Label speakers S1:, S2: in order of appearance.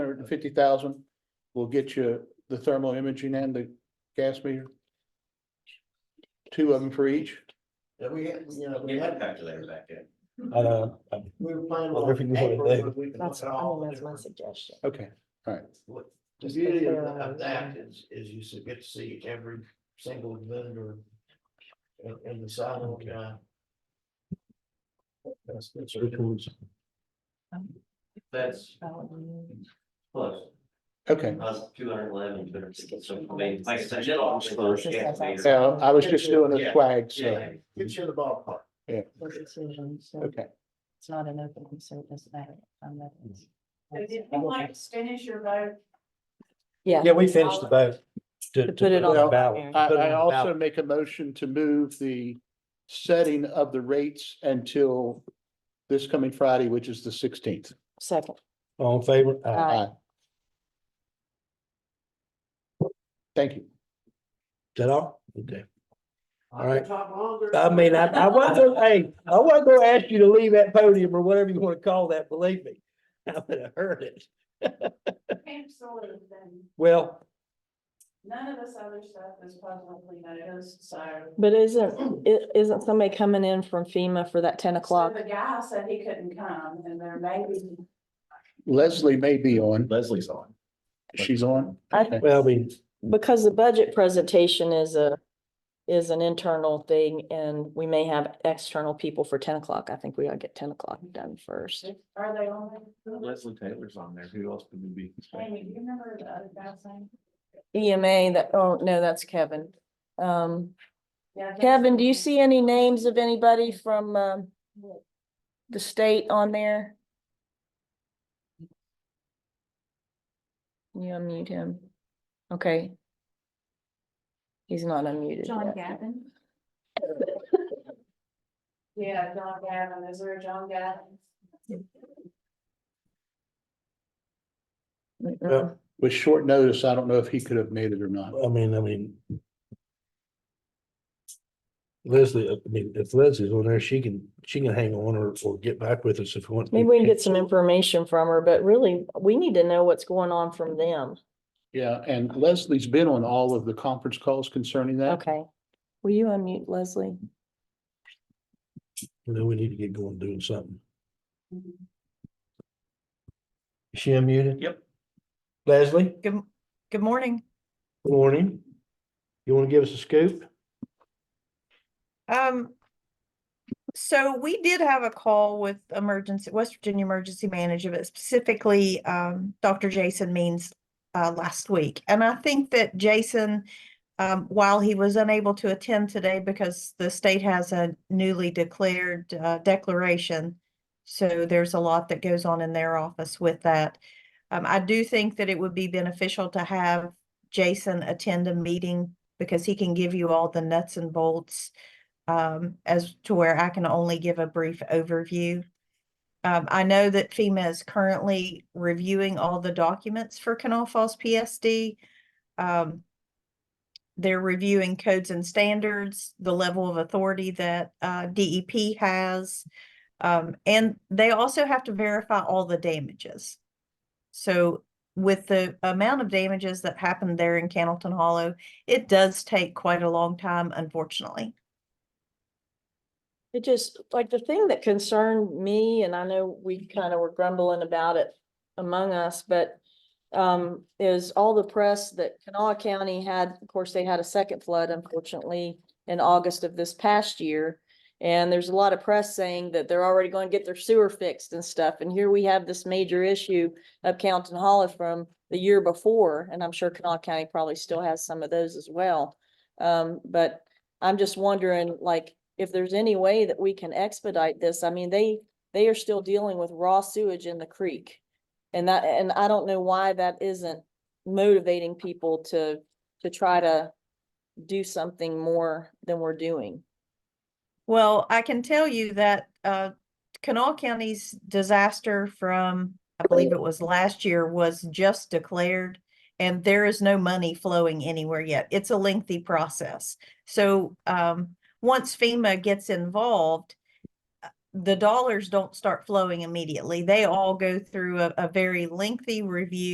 S1: hundred and fifty thousand will get you the thermal imaging and the gas meter. Two of them for each.
S2: Yeah, we had, you know, we
S3: Get my
S2: had,
S3: calculator back in.
S4: I know.
S2: we were planning
S4: Well,
S2: on.
S4: everything was on
S2: April,
S4: there.
S2: but we can look
S5: That's,
S2: at
S5: I
S2: all
S5: mean,
S2: the
S5: Oh, that's my
S2: different-
S5: suggestion.
S1: Okay,
S2: what- The
S5: Just
S2: beauty
S5: because
S2: of
S5: they're
S2: of
S5: on
S2: that
S5: there.
S2: is, is you s- get to see every single vendor and, and the sidewalk guy. That's, that's.
S3: That's close.
S1: okay.
S3: That's two hundred eleven, two hundred sixty, so I mean, like I said, I did all the first calculator.
S1: Now, I was just doing a swag, so,
S3: Yeah,
S2: Get you in the ballpark.
S5: For decisions, so
S1: okay.
S5: it's not an open, so it doesn't matter. I'm not-
S6: So did you like to finish your vote?
S5: Yeah,
S4: Yeah, we finished the vote.
S5: to put it on
S1: Well,
S5: the
S4: the ballot.
S5: ballot.
S1: I,
S4: Put it on
S1: I
S4: the
S1: also
S4: ballot.
S1: make a motion to move the setting of the rates until this coming Friday, which is the sixteenth.
S5: Second.
S4: All in favor?
S5: Aye.
S1: Thank you.
S4: Is that all? Okay. All
S2: I
S4: right.
S2: could talk longer.
S4: I mean, I, I wasn't, hey, I wasn't gonna ask you to leave that podium or whatever you wanna call that, believe me. I would have heard it.
S6: Absolutely, then
S4: Well,
S6: none of this other stuff is publicly noticed, so.
S5: But isn't, i- isn't somebody coming in from FEMA for that ten o'clock?
S6: So The guy said he couldn't come and there may be
S1: Leslie may be on.
S3: Leslie's on.
S1: She's on.
S5: I-
S1: Okay.
S4: well, I mean,
S5: Because the budget presentation is a, is an internal thing and we may have external people for ten o'clock. I think we gotta get ten o'clock done first.
S6: Are they only?
S3: Leslie Taylor's on there. Who else could we be?
S6: Amy, do you remember the other guy's name?
S5: EMA, that, oh, no, that's Kevin. Um,
S6: Yeah, I think-
S5: Kevin, do you see any names of anybody from, um, the state on there? Can You unmute him. Okay. He's not unmuted
S6: John
S5: yet.
S6: Gavin? Yeah, John Gavin, is there a John Gavin?
S5: Mm-mm.
S1: With short notice, I don't know if he could have made it or not.
S4: I mean, I mean. Leslie, I mean, if Leslie's on there, she can, she can hang on or, or get back with us if we want.
S5: Maybe we can get some information from her, but really, we need to know what's going on from them.
S1: Yeah, and Leslie's been on all of the conference calls concerning that.
S5: Okay. Will you unmute Leslie?
S4: You know, we need to get going doing something.
S6: Mhm.
S4: Is She unmuted?
S3: Yep.
S4: Leslie,
S7: Good, m- good morning.
S4: good morning. You want to give us a scoop?
S7: Um, so we did have a call with emergency, West Virginia Emergency Management, specifically, um, Dr. Jason Means, uh, last week. And I think that Jason, um, while he was unable to attend today because the state has a newly declared, uh, declaration. So there's a lot that goes on in their office with that. Um, I do think that it would be beneficial to have Jason attend a meeting because he can give you all the nuts and bolts um, as to where I can only give a brief overview. Um, I know that FEMA is currently reviewing all the documents for Canal Falls PSD. Um, they're reviewing codes and standards, the level of authority that uh, DEP has. Um, and they also have to verify all the damages. So with the amount of damages that happened there in Cannleton Hollow, it does take quite a long time, unfortunately.
S5: It just, like, the thing that concerned me, and I know we kind of were grumbling about it among us, but um, is all the press that Kanawha County had, of course, they had a second flood unfortunately in August of this past year. And there's a lot of press saying that they're already going to get their sewer fixed and stuff. And here we have this major issue of Countin Hollow from the year before, and I'm sure Kanawha County probably still has some of those as well. Um, but I'm just wondering, like, if there's any way that we can expedite this, I mean, they, they are still dealing with raw sewage in the creek. And that, and I don't know why that isn't motivating people to, to try to do something more than we're doing.
S7: Well, I can tell you that uh, Kanawha County's disaster from, I believe it was last year, was just declared. And there is no money flowing anywhere yet. It's a lengthy process. So um, once FEMA gets involved, uh, the dollars don't start flowing immediately. They all go through a, a very lengthy review.